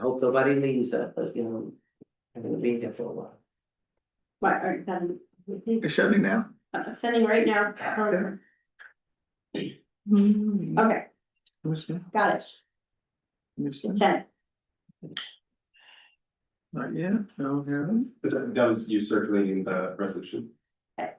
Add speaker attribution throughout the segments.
Speaker 1: Hope nobody leaves that, but you know, I'm gonna be there for a while.
Speaker 2: Why aren't seven,
Speaker 3: You're shutting down?
Speaker 2: I'm sending right now.
Speaker 3: Okay.
Speaker 1: Mm-hmm.
Speaker 2: Okay,
Speaker 3: Who's that?
Speaker 2: got it,
Speaker 3: Who's that?
Speaker 2: sent.
Speaker 3: Not yet, no, here.
Speaker 4: But that that was you circulating the resolution.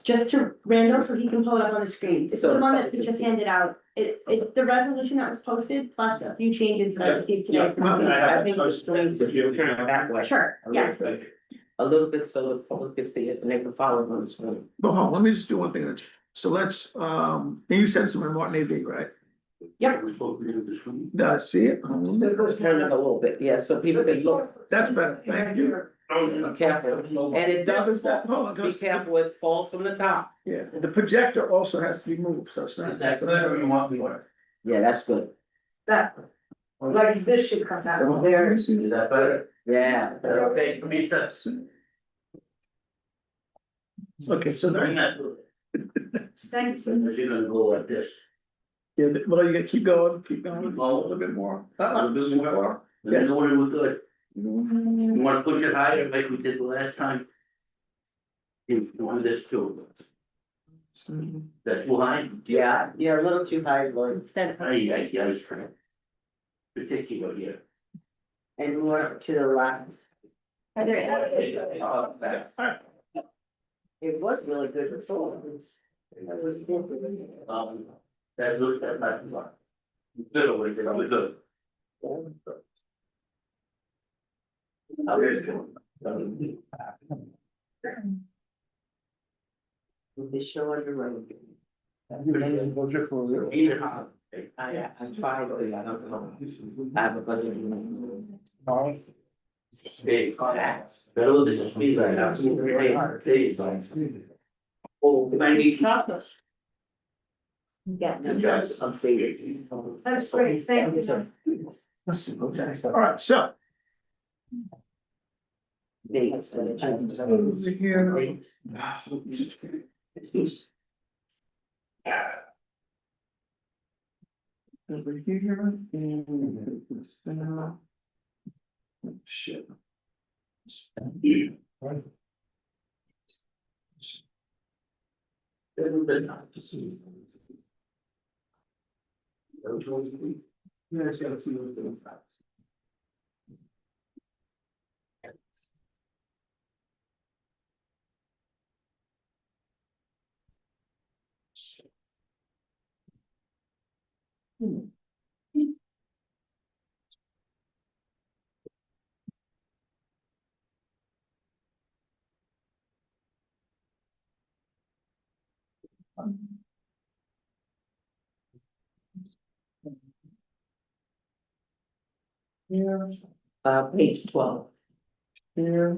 Speaker 2: Just to Randall, so he can pull it up on the screen, it's the
Speaker 1: So-
Speaker 2: one that we just handed out, it, it's the resolution that was posted, plus a few changes that I received today. from
Speaker 3: yeah.
Speaker 2: you.
Speaker 1: I think it's strange that you're kind of that way.
Speaker 2: Sure,
Speaker 1: a
Speaker 2: yeah,
Speaker 1: little bit- A little bit so the public can see it and they can follow it on the screen.
Speaker 3: But hold on, let me just do one thing. So let's, um, and you said something Martin A V, right?
Speaker 2: Yep.
Speaker 4: We're supposed to be in the room.
Speaker 3: Did I see it?
Speaker 1: Turn it a little bit, yeah, so people can look,
Speaker 3: That's better, thank you.
Speaker 1: be careful, and it doesn't, fall.
Speaker 3: Hold on,
Speaker 1: be
Speaker 3: just-
Speaker 1: careful, it falls from the top.
Speaker 3: Yeah, the projector also has to be moved, so it's not.
Speaker 4: want me to.
Speaker 1: Yeah, that's good.
Speaker 5: That, like this should come out of there.
Speaker 4: Is that better?
Speaker 1: Yeah.
Speaker 4: Okay, for me, sir.
Speaker 3: Okay, so there, yeah,
Speaker 2: thanks,
Speaker 4: You're gonna go like this.
Speaker 3: but- well, you gotta keep going, keep going, a
Speaker 4: Oh.
Speaker 3: little bit more. Mm-hmm.
Speaker 4: A little bit more. That's what it was good. You wanna push it higher like we did the last time? You you want this too, that's too high?
Speaker 1: Yeah, you're a little too high, Lloyd,
Speaker 5: Instead
Speaker 4: Ay, ay, ay, I was trying. Particular here.
Speaker 1: and more to the left.
Speaker 5: Are
Speaker 1: It was really good before. That was good.
Speaker 4: Um, that's what, that's not too far. Little, we're good. How is it going?
Speaker 1: They show on the road.
Speaker 4: Either how.
Speaker 1: I, I tried, but I don't know. I have a budget.
Speaker 4: Hey, contacts, better than the speed right now, so we're really hard, days like. Oh, ninety.
Speaker 5: Yeah.
Speaker 1: The job's updated.
Speaker 5: That's great, thank you.
Speaker 3: All right, so.
Speaker 1: Dates and the
Speaker 3: Over here.
Speaker 1: jobs.
Speaker 3: Over here and. this down. Shit.
Speaker 4: Yes, yeah, it's a little bit of-
Speaker 1: Here, uh, page twelve. Here.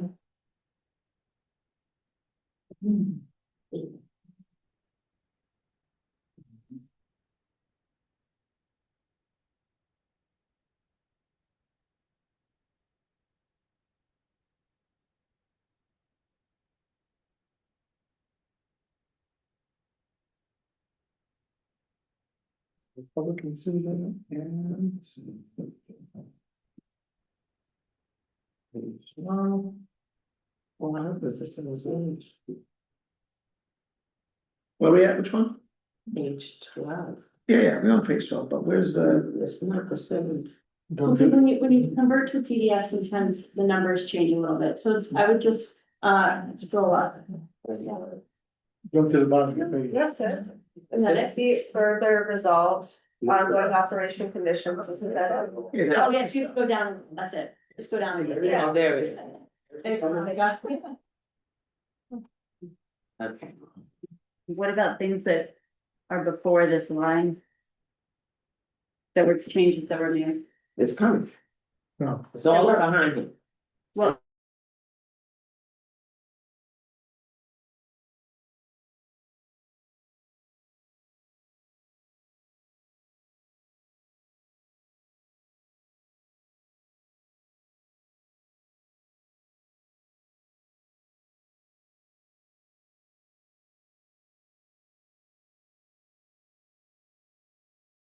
Speaker 3: Republican citizen and. Page one.
Speaker 1: Well, I hope this is in the
Speaker 3: Where we at, which one?
Speaker 1: page twelve.
Speaker 3: Yeah, yeah, we're on page twelve, but where's the,
Speaker 1: It's not the seven.
Speaker 2: Okay, when you, when you convert to PDF, sometimes the numbers change a little bit, so I would just, uh, go up.
Speaker 3: go to the bottom of the page.
Speaker 5: That's it.
Speaker 1: That's
Speaker 5: And then if be further resolved, ongoing operation conditions, isn't that?
Speaker 1: Oh,
Speaker 3: Yeah,
Speaker 2: Oh,
Speaker 3: that's-
Speaker 2: yes, you go down, that's it, just go down. again.
Speaker 5: Yeah.
Speaker 1: there it is.
Speaker 2: Thanks, Monica.
Speaker 1: Okay.
Speaker 6: What about things that are before this line? That were changes that were made?
Speaker 1: It's coming.
Speaker 3: No.
Speaker 1: It's all behind him.
Speaker 6: Well,